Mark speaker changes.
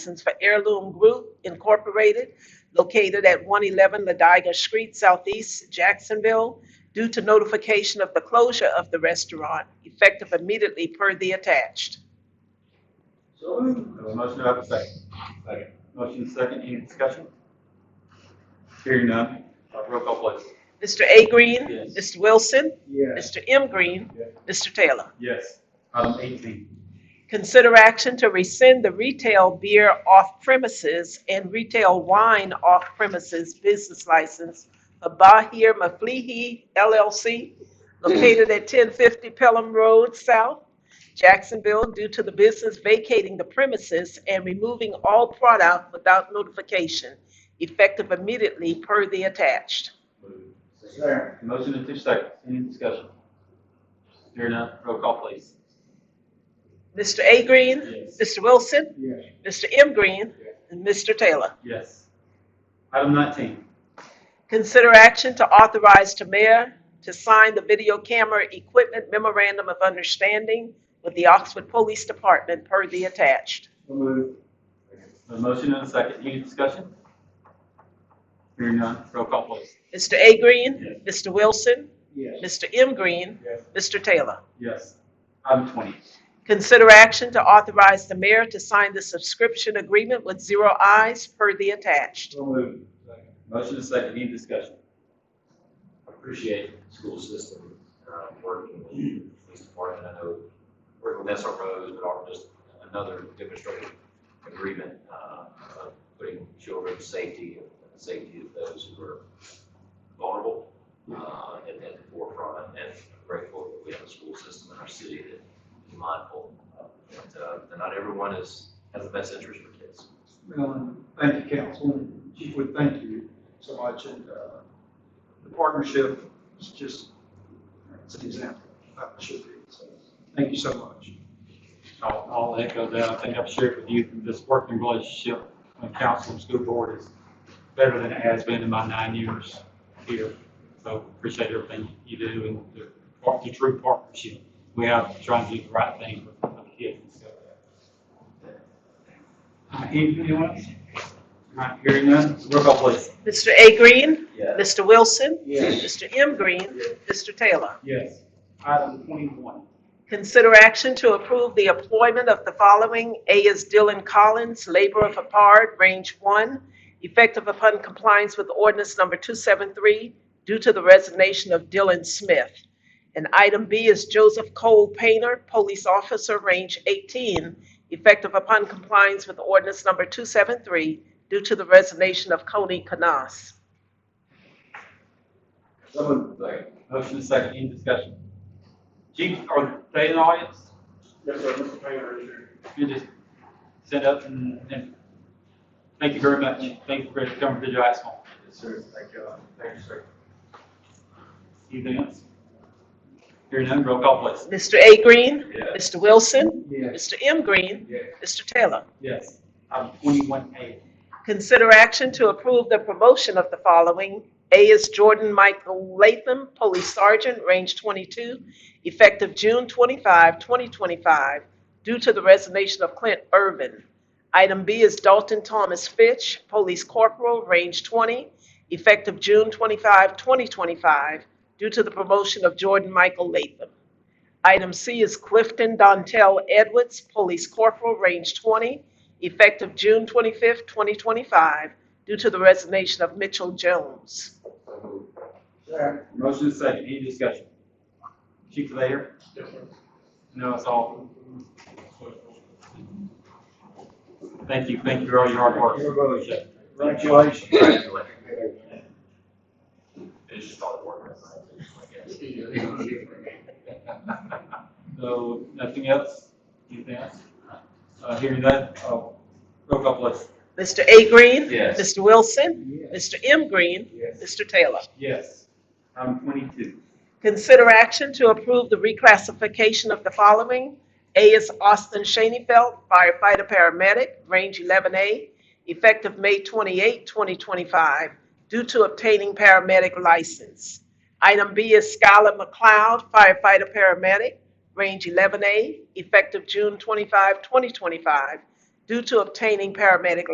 Speaker 1: license for Heirloom Group Incorporated located at 111 Ladiga Street Southeast, Jacksonville, due to notification of the closure of the restaurant effective immediately per the attached.
Speaker 2: So moved. Have a motion, do I have a second? Second. Motion is second, any discussion? Hearing none, uh, roll call please.
Speaker 1: Mr. A. Green.
Speaker 2: Yes.
Speaker 1: Mr. Wilson.
Speaker 3: Yes.
Speaker 1: Mr. M. Green.
Speaker 3: Yes.
Speaker 1: Mr. Taylor.
Speaker 2: Yes. Item eighteen.
Speaker 1: Consider action to rescind the retail beer off premises and retail wine off premises business license of Bahir Maflihi LLC located at 1050 Pelham Road South, Jacksonville, due to the business vacating the premises and removing all product without notification, effective immediately per the attached.
Speaker 3: Second.
Speaker 2: Motion in two seconds, any discussion? Hearing none, roll call please.
Speaker 1: Mr. A. Green,
Speaker 2: Yes.
Speaker 1: Mr. Wilson,
Speaker 3: Yes.
Speaker 1: Mr. M. Green,
Speaker 3: Yes.
Speaker 1: and Mr. Taylor.
Speaker 2: Yes. Item nineteen.
Speaker 1: Consider action to authorize the mayor to sign the video camera equipment memorandum of understanding with the Oxford Police Department per the attached.
Speaker 3: So moved.
Speaker 2: A motion and a second, any discussion? Hearing none, roll call please.
Speaker 1: Mr. A. Green, Mr. Wilson,
Speaker 3: Yes.
Speaker 1: Mr. M. Green,
Speaker 3: Yes.
Speaker 1: Mr. Taylor.
Speaker 2: Yes. Item twenty.
Speaker 1: Consider action to authorize the mayor to sign the subscription agreement with Zero Eyes per the attached.
Speaker 3: So moved.
Speaker 2: Motion and a second, any discussion?
Speaker 4: appreciate school system, um, working with the police department, I know, working with SROs, but also just another demonstrative agreement, uh, of putting children's safety and the safety of those who are vulnerable, uh, at, at the forefront, and grateful that we have a school system in our city that is mindful, uh, that, uh, that not everyone is, has the best interest for kids.
Speaker 5: Well, Um, thank you, council, and Chief Wood, thank you so much, and, uh, the partnership is just, it's an example of how it should be, so, thank you so much.
Speaker 2: I'll, I'll echo that. I think I've shared with you, this working relationship between council and school board is better than it has been in my nine years here. So appreciate everything you do and the, part- the true partnership. We have trying to do the right thing for for the kids and stuff. Uh, Anything you want? Not hearing none. Roll call please.
Speaker 1: Mr. A. Green,
Speaker 2: Yes.
Speaker 1: Mr. Wilson,
Speaker 3: Yes.
Speaker 1: Mr. M. Green, Mr. Taylor.
Speaker 2: Yes. Item twenty-one.
Speaker 1: Consider action to approve the employment of the following. A is Dylan Collins, laborer for PARD, range one, effective upon compliance with ordinance number 273 due to the resignation of Dylan Smith. And item B is Joseph Cole Painter, police officer, range 18, effective upon compliance with ordinance number 273 due to the resignation of Coney Canas.
Speaker 3: So moved.
Speaker 2: Motion is second. Any discussion? Chief, are they in the audience?
Speaker 3: Yes, sir, Mr. Painter is here.
Speaker 2: you just sit up and, and thank you very much. Thank you for coming to Jacksonville.
Speaker 3: Yes, sir, thank you, uh, thank you, sir.
Speaker 2: Anything else? Hearing none, roll call please.
Speaker 1: Mr. A. Green,
Speaker 4: Yeah.
Speaker 1: Mr. Wilson,
Speaker 3: Yes.
Speaker 1: Mr. M. Green,
Speaker 3: Yes.
Speaker 1: Mr. Taylor.
Speaker 2: Yes. Item twenty-one A.
Speaker 1: Consider action to approve the promotion of the following. A is Jordan Michael Latham, Police Sergeant, Range 22, effective June 25, 2025, due to the resignation of Clint Irvin. Item B is Dalton Thomas Fitch, Police Corporal, Range 20, effective June 25, 2025, due to the promotion of Jordan Michael Latham. Item C is Clifton Dontel Edwards, Police Corporal, Range 20, effective June 25th, 2025, due to the resignation of Mitchell Jones.
Speaker 3: Second.
Speaker 2: Motion is second. Any discussion? Chief, are they here?
Speaker 3: Yes, sir.
Speaker 2: No, it's all. Thank you. Thank you for all your hard work.
Speaker 3: Everybody,
Speaker 2: Appreciate it.
Speaker 3: congratulations.
Speaker 4: It's just all the work, I guess.
Speaker 2: So, nothing else? Anything else? Uh, hearing none, uh, roll call please.
Speaker 1: Mr. A. Green?
Speaker 4: Yes.
Speaker 1: Mr. Wilson?
Speaker 3: Yes.
Speaker 1: Mr. M. Green?
Speaker 3: Yes.
Speaker 1: Mr. Taylor?
Speaker 2: Yes. Item twenty-two.
Speaker 1: Consider action to approve the reclassification of the following. A is Austin Shanefeld, firefighter paramedic, range 11A, effective May 28, 2025, due to obtaining paramedic license. Item B is Skylar McLeod, firefighter paramedic, range 11A, effective June 25, 2025, due to obtaining paramedic